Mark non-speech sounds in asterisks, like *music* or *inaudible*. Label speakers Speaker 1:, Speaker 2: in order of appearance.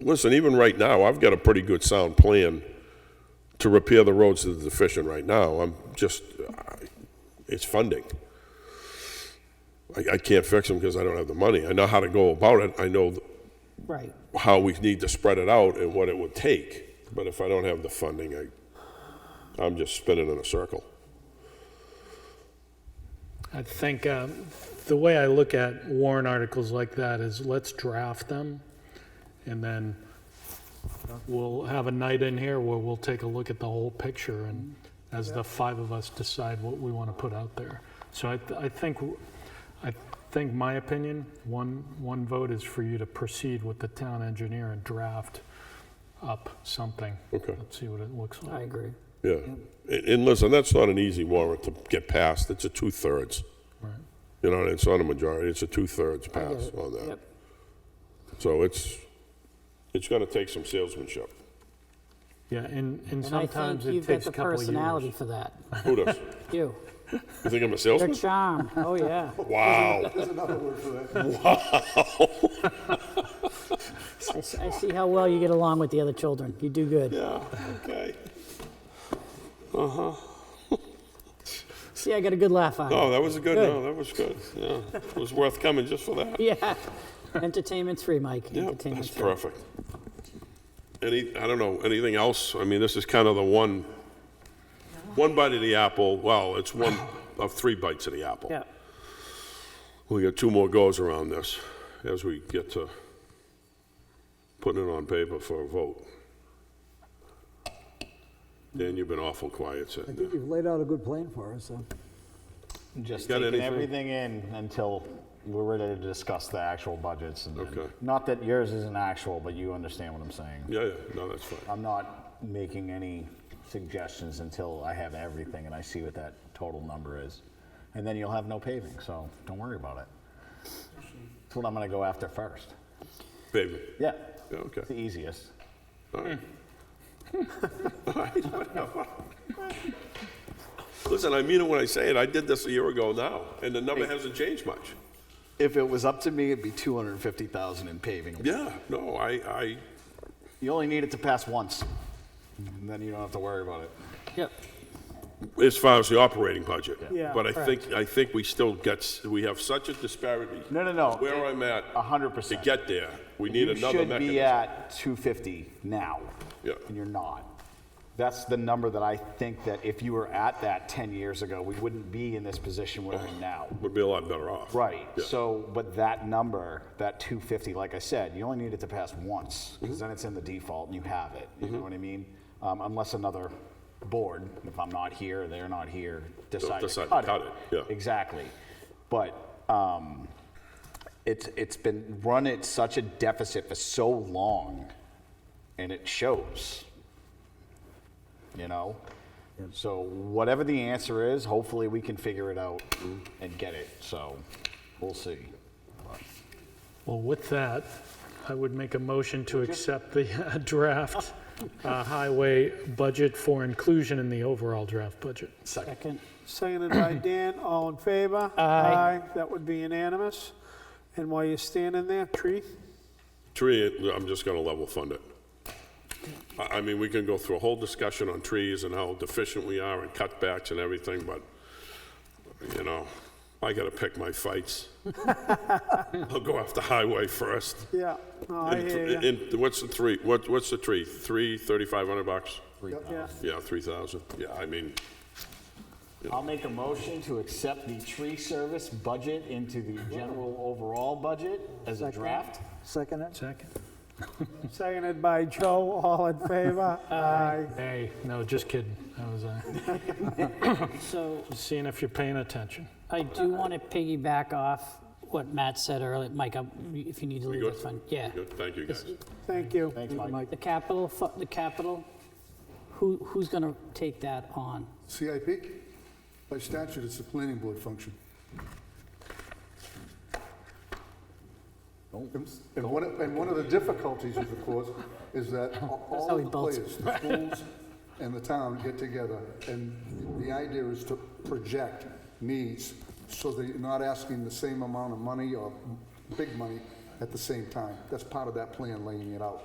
Speaker 1: Listen, even right now, I've got a pretty good sound plan to repair the roads that are deficient right now. I'm just, I- it's funding. I, I can't fix them because I don't have the money. I know how to go about it. I know
Speaker 2: Right.
Speaker 1: how we need to spread it out and what it would take. But if I don't have the funding, I, I'm just spinning in a circle.
Speaker 3: I think um, the way I look at warrant articles like that is let's draft them, and then we'll have a night in here where we'll take a look at the whole picture, and as the five of us decide what we want to put out there. So I, th- I think, I think my opinion, one, one vote is for you to proceed with the town engineer and draft up something.
Speaker 1: Okay.
Speaker 3: Let's see what it looks like.
Speaker 2: I agree.
Speaker 1: Yeah. And, and listen, that's not an easy warrant to get passed. It's a two-thirds.
Speaker 3: Right.
Speaker 1: You know, it's not a majority. It's a two-thirds pass on that.
Speaker 2: Yep.
Speaker 1: So it's, it's going to take some salesmanship.
Speaker 3: Yeah, and, and
Speaker 2: And I
Speaker 3: sometimes
Speaker 2: think
Speaker 3: it
Speaker 2: you've got
Speaker 3: takes
Speaker 2: the
Speaker 3: a couple of years.
Speaker 2: personality for *laughs* that.
Speaker 1: Who does?
Speaker 2: You.
Speaker 1: You think I'm a
Speaker 2: Your
Speaker 1: salesman?
Speaker 2: charm. Oh, yeah.
Speaker 1: Wow.
Speaker 2: I s- I see how well you get along with the other children. You do good.
Speaker 1: Yeah, okay.
Speaker 2: See, I got a good laugh on you.
Speaker 1: No, Oh, that was a good, no, that was good. Yeah, it was worth coming just for that.
Speaker 2: *laughs* Yeah. Entertainment's free, Mike.
Speaker 1: Yeah, that's
Speaker 2: Entertainment's free.
Speaker 1: perfect. Any, I don't know, anything else? I mean, this is kind of the one, one bite of the apple, well, it's
Speaker 4: *laughs*
Speaker 1: one of three bites of the apple.
Speaker 2: Yeah.
Speaker 1: We got two more goes around this as we get to putting it on paper for a vote. Dan, you've been awful quiet
Speaker 4: I
Speaker 1: sitting there.
Speaker 4: think you've laid out a good plan for us, so.
Speaker 5: Just
Speaker 1: Got
Speaker 5: taking
Speaker 1: anything?
Speaker 5: everything in until we're ready to discuss the actual budgets. and then-
Speaker 1: Okay.
Speaker 5: Not that yours isn't actual, but you understand what I'm saying.
Speaker 1: Yeah, yeah, no, that's fine.
Speaker 5: I'm not making any suggestions until I have everything and I see what that total number is. And then you'll have no paving, so don't worry about it. That's what I'm gonna go after first.
Speaker 1: Baby,
Speaker 5: Yeah,
Speaker 1: yeah, okay.
Speaker 5: it's the easiest.
Speaker 1: All right. All right, whatever. *laughs* Listen, I mean it when I say it. I did this a year ago now, and the number hasn't changed much.
Speaker 6: If it was up to me, it'd be 250,000 in paving.
Speaker 1: Yeah, no, I, I,
Speaker 5: You only need it to pass once, and then you don't have to worry about it.
Speaker 2: Yep.
Speaker 1: as far as the operating budget.
Speaker 2: Yeah,
Speaker 1: But I think, I think we still got, s- we have such a disparity.
Speaker 5: No, no, no.
Speaker 1: Where I'm at.
Speaker 5: A hundred
Speaker 1: To
Speaker 5: percent.
Speaker 1: get there, we need another
Speaker 5: You should be
Speaker 1: mechanism.
Speaker 5: at 250 now.
Speaker 1: Yeah.
Speaker 5: And you're not. That's the number that I think that if you were at that 10 years ago, we wouldn't be in this position we're in now.
Speaker 1: Would be a lot better off.
Speaker 5: Right.
Speaker 1: Yeah.
Speaker 5: So, but that number, that 250, like I said, you only need it to pass once because then it's in the default and you have it. You
Speaker 1: Mm-hmm.
Speaker 5: know what I mean? Um, unless another board, if I'm not here, they're not here, decide,
Speaker 1: decide to
Speaker 5: to cut,
Speaker 1: cut
Speaker 5: it.
Speaker 1: it, yeah.
Speaker 5: Exactly. But um, it's it's been run at such a deficit for so long, and it shows you know? So whatever the answer is, hopefully we can figure it out and get it, so we'll see.
Speaker 3: Well, with that, I would make a motion to accept the uh, *laughs* draft uh, highway budget for inclusion in the overall draft budget.
Speaker 2: Second.
Speaker 7: Seconded *clears throat* by Dan, all in favor? Aye. That would be unanimous. And while you're standing there, tree,
Speaker 1: Tree, I'm just gonna level fund it. I, I mean, we can go through a whole discussion on trees and how deficient we are and cutbacks and everything, but, you know, I gotta pick my
Speaker 7: *laughs*
Speaker 1: fights. I'll go after highway first.
Speaker 7: yeah, no, I
Speaker 1: And-
Speaker 7: hear you.
Speaker 1: And what's the three, what, what's the tree? Three, thirty-five hundred bucks?
Speaker 7: Yeah.
Speaker 1: Yeah, three thousand. Yeah, I mean,
Speaker 5: I'll make a motion to accept the tree service budget into the general overall budget as a draft.
Speaker 4: Second it?
Speaker 3: Second?
Speaker 7: Seconded by Joe, all in favor? Aye.
Speaker 3: Hey, no, just kidding. I was uh,
Speaker 2: So
Speaker 3: seeing if you're paying attention.
Speaker 2: I do want to piggyback off what Matt said earlier. Mike, I'm- if you need to leave,
Speaker 1: good?
Speaker 2: that's fine. Yeah.
Speaker 1: good, thank you, guys.
Speaker 7: Thank you.
Speaker 5: Thanks, Mike.
Speaker 2: The capital, fu- the capital, who, who's going to take that on?
Speaker 8: CIP? By statute, it's the planning board function. And and one, of- and one of the difficulties of the course is that all
Speaker 2: how
Speaker 8: all
Speaker 2: he
Speaker 8: of the
Speaker 2: bolts.
Speaker 8: players, the schools and the town get together, and the idea is to project needs, so that you're not asking the same amount of money or big money at the same time. That's part of that plan, laying it out.